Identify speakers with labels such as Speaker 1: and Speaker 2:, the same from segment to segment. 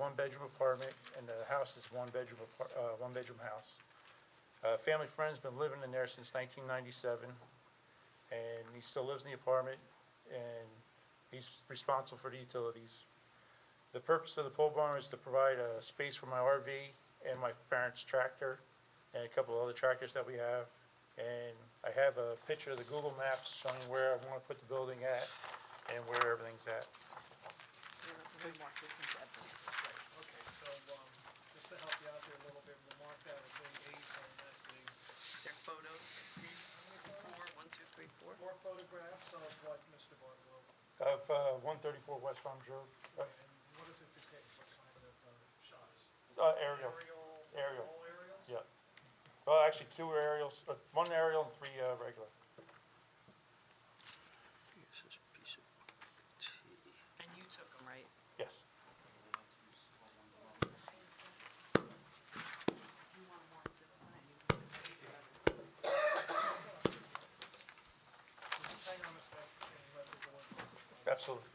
Speaker 1: one-bedroom apartment, and the house is one-bedroom, apar- uh, one-bedroom house. Uh, family friend's been living in there since nineteen ninety-seven, and he still lives in the apartment, and he's responsible for the utilities. The purpose of the pole barn is to provide a space for my RV and my parents' tractor, and a couple of other tractors that we have. And I have a picture of the Google Maps showing where I want to put the building at and where everything's at.
Speaker 2: Remark this into evidence.
Speaker 3: Right, okay, so, um, just to help you out there a little bit, we'll mark that as A eight, and that's the
Speaker 2: There are photos, four, one, two, three, four.
Speaker 3: four photographs of what Mr. Barlow,
Speaker 1: Of uh, 134 West Farms Road, uh,
Speaker 3: and what does it depict, what kind of, uh, shots?
Speaker 1: uh, aerial,
Speaker 3: Aerials?
Speaker 1: Aerial.
Speaker 3: All aerials?
Speaker 1: yeah. Well, actually, two aerials, uh, one aerial and three uh, regular.
Speaker 4: Here's this piece of tea.
Speaker 2: And you took them, right?
Speaker 1: Yes,
Speaker 2: You want to mark this one?
Speaker 3: Just hang on a sec, and let the board.
Speaker 1: absolutely.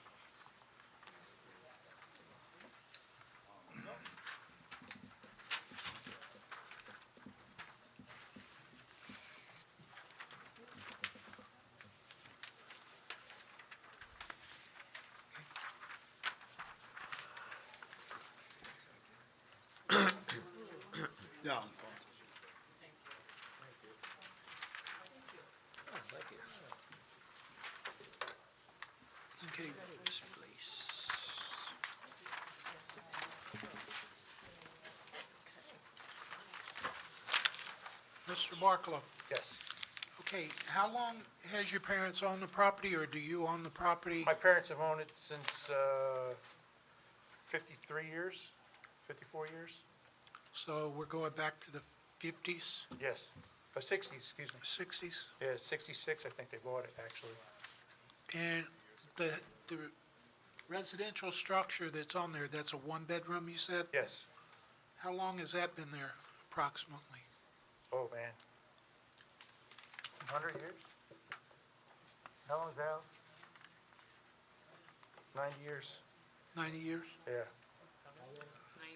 Speaker 5: No.
Speaker 4: Oh, thank you. Okay, this place.
Speaker 3: Mr. Barlow,
Speaker 1: Yes.
Speaker 3: okay, how long has your parents owned the property, or do you own the property?
Speaker 1: My parents have owned it since uh, 53 years, 54 years?
Speaker 3: So we're going back to the fifties,
Speaker 1: Yes, Uh, 60s, excuse me.
Speaker 3: sixties?
Speaker 1: Yeah, 66, I think they bought it, actually.
Speaker 3: And the, the residential structure that's on there, that's a one-bedroom, you said?
Speaker 1: Yes.
Speaker 3: How long has that been there approximately?
Speaker 1: Oh, man. 100 years? How long's that? 90 years,
Speaker 3: 90 years?
Speaker 1: yeah.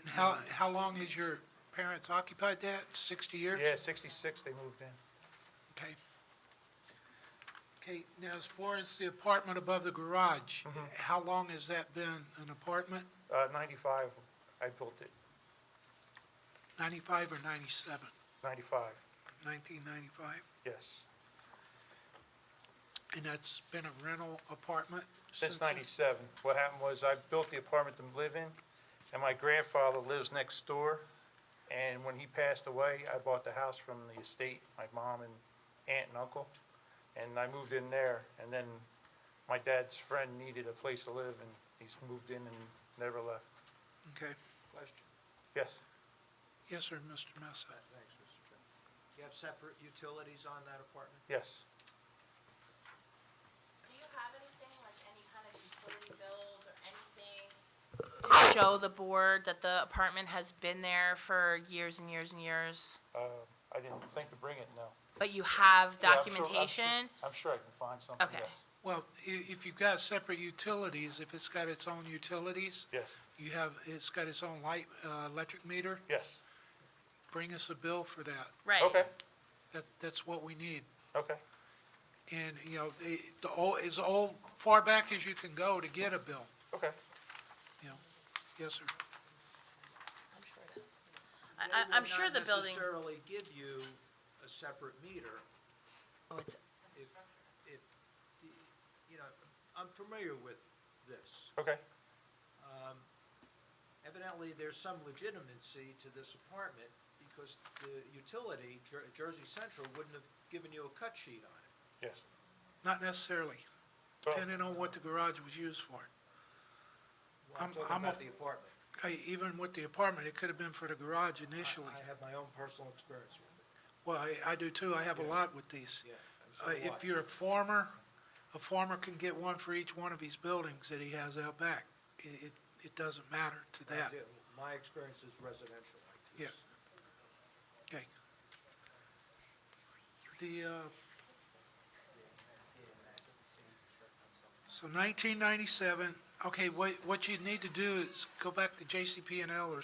Speaker 3: And how, how long has your parents occupied that? 60 years?
Speaker 1: Yeah, 66 they moved in.
Speaker 3: Okay. Okay, now as far as the apartment above the garage, how long has that been an apartment?
Speaker 1: Uh, 95, I built it,
Speaker 3: 95 or 97?
Speaker 1: 95,
Speaker 3: 1995?
Speaker 1: yes.
Speaker 3: And that's been a rental apartment since?
Speaker 1: Since
Speaker 3: then?
Speaker 1: 97. What happened was I built the apartment to live in, and my grandfather lives next door. And when he passed away, I bought the house from the estate, my mom and aunt and uncle. And I moved in there, and then my dad's friend needed a place to live, and he's moved in and never left.
Speaker 3: Okay.
Speaker 5: Question.
Speaker 1: Yes,
Speaker 3: Yes, sir, Mr. Mesa.
Speaker 5: Thanks, Mr. Chairman. Do you have separate utilities on that apartment?
Speaker 1: yes.
Speaker 6: Do you have anything, like any kind of utility bills or anything? to Show the board that the apartment has been there for years and years and years,
Speaker 1: Uh, I didn't think to bring it, no.
Speaker 6: but you have
Speaker 1: Yeah, I'm sure- I'm sure-
Speaker 6: documentation?
Speaker 1: I'm sure I can find something,
Speaker 6: Okay.
Speaker 1: yes.
Speaker 3: Well, i- if you've got separate utilities, if it's got its own utilities,
Speaker 1: Yes,
Speaker 3: you have, it's got its own light, uh, electric meter,
Speaker 1: yes.
Speaker 3: bring us a bill for that.
Speaker 6: Right.
Speaker 1: Okay,
Speaker 3: That, that's what we need.
Speaker 1: okay.
Speaker 3: And, you know, the, the old, as old, far back as you can go to get a bill,
Speaker 1: Okay,
Speaker 3: you know. Yes, sir.
Speaker 6: I'm sure it is. I, I, I'm sure the building,
Speaker 5: They will not necessarily give you a separate meter
Speaker 6: oh, it's,
Speaker 5: if, if, the- you know, I'm familiar with this.
Speaker 1: okay,
Speaker 5: Um, Evidently, there's some legitimacy to this apartment because the utility, Jer- Jersey Central, wouldn't have given you a cut sheet on it.
Speaker 1: yes.
Speaker 3: Not necessarily,
Speaker 1: Well,
Speaker 3: depending on what the garage was used for.
Speaker 5: Well,
Speaker 3: I'm-
Speaker 5: I'm talking
Speaker 3: I'm a-
Speaker 5: about the apartment.
Speaker 3: I- Even with the apartment, it could have been for the garage
Speaker 5: I-
Speaker 3: initially.
Speaker 5: I have my own personal experience with it,
Speaker 3: Well, I, I do too. I have a lot with these.
Speaker 5: yeah. and so
Speaker 3: Uh,
Speaker 5: do I.
Speaker 3: If you're a farmer, a farmer can get one for each one of his buildings that he has out back. It, it, it doesn't matter to
Speaker 5: I
Speaker 3: that.
Speaker 5: do. My experience is residential like this.
Speaker 3: Yeah. Okay. The, uh, so nineteen ninety-seven, Okay, what, what you need to do is go back to JCP and L or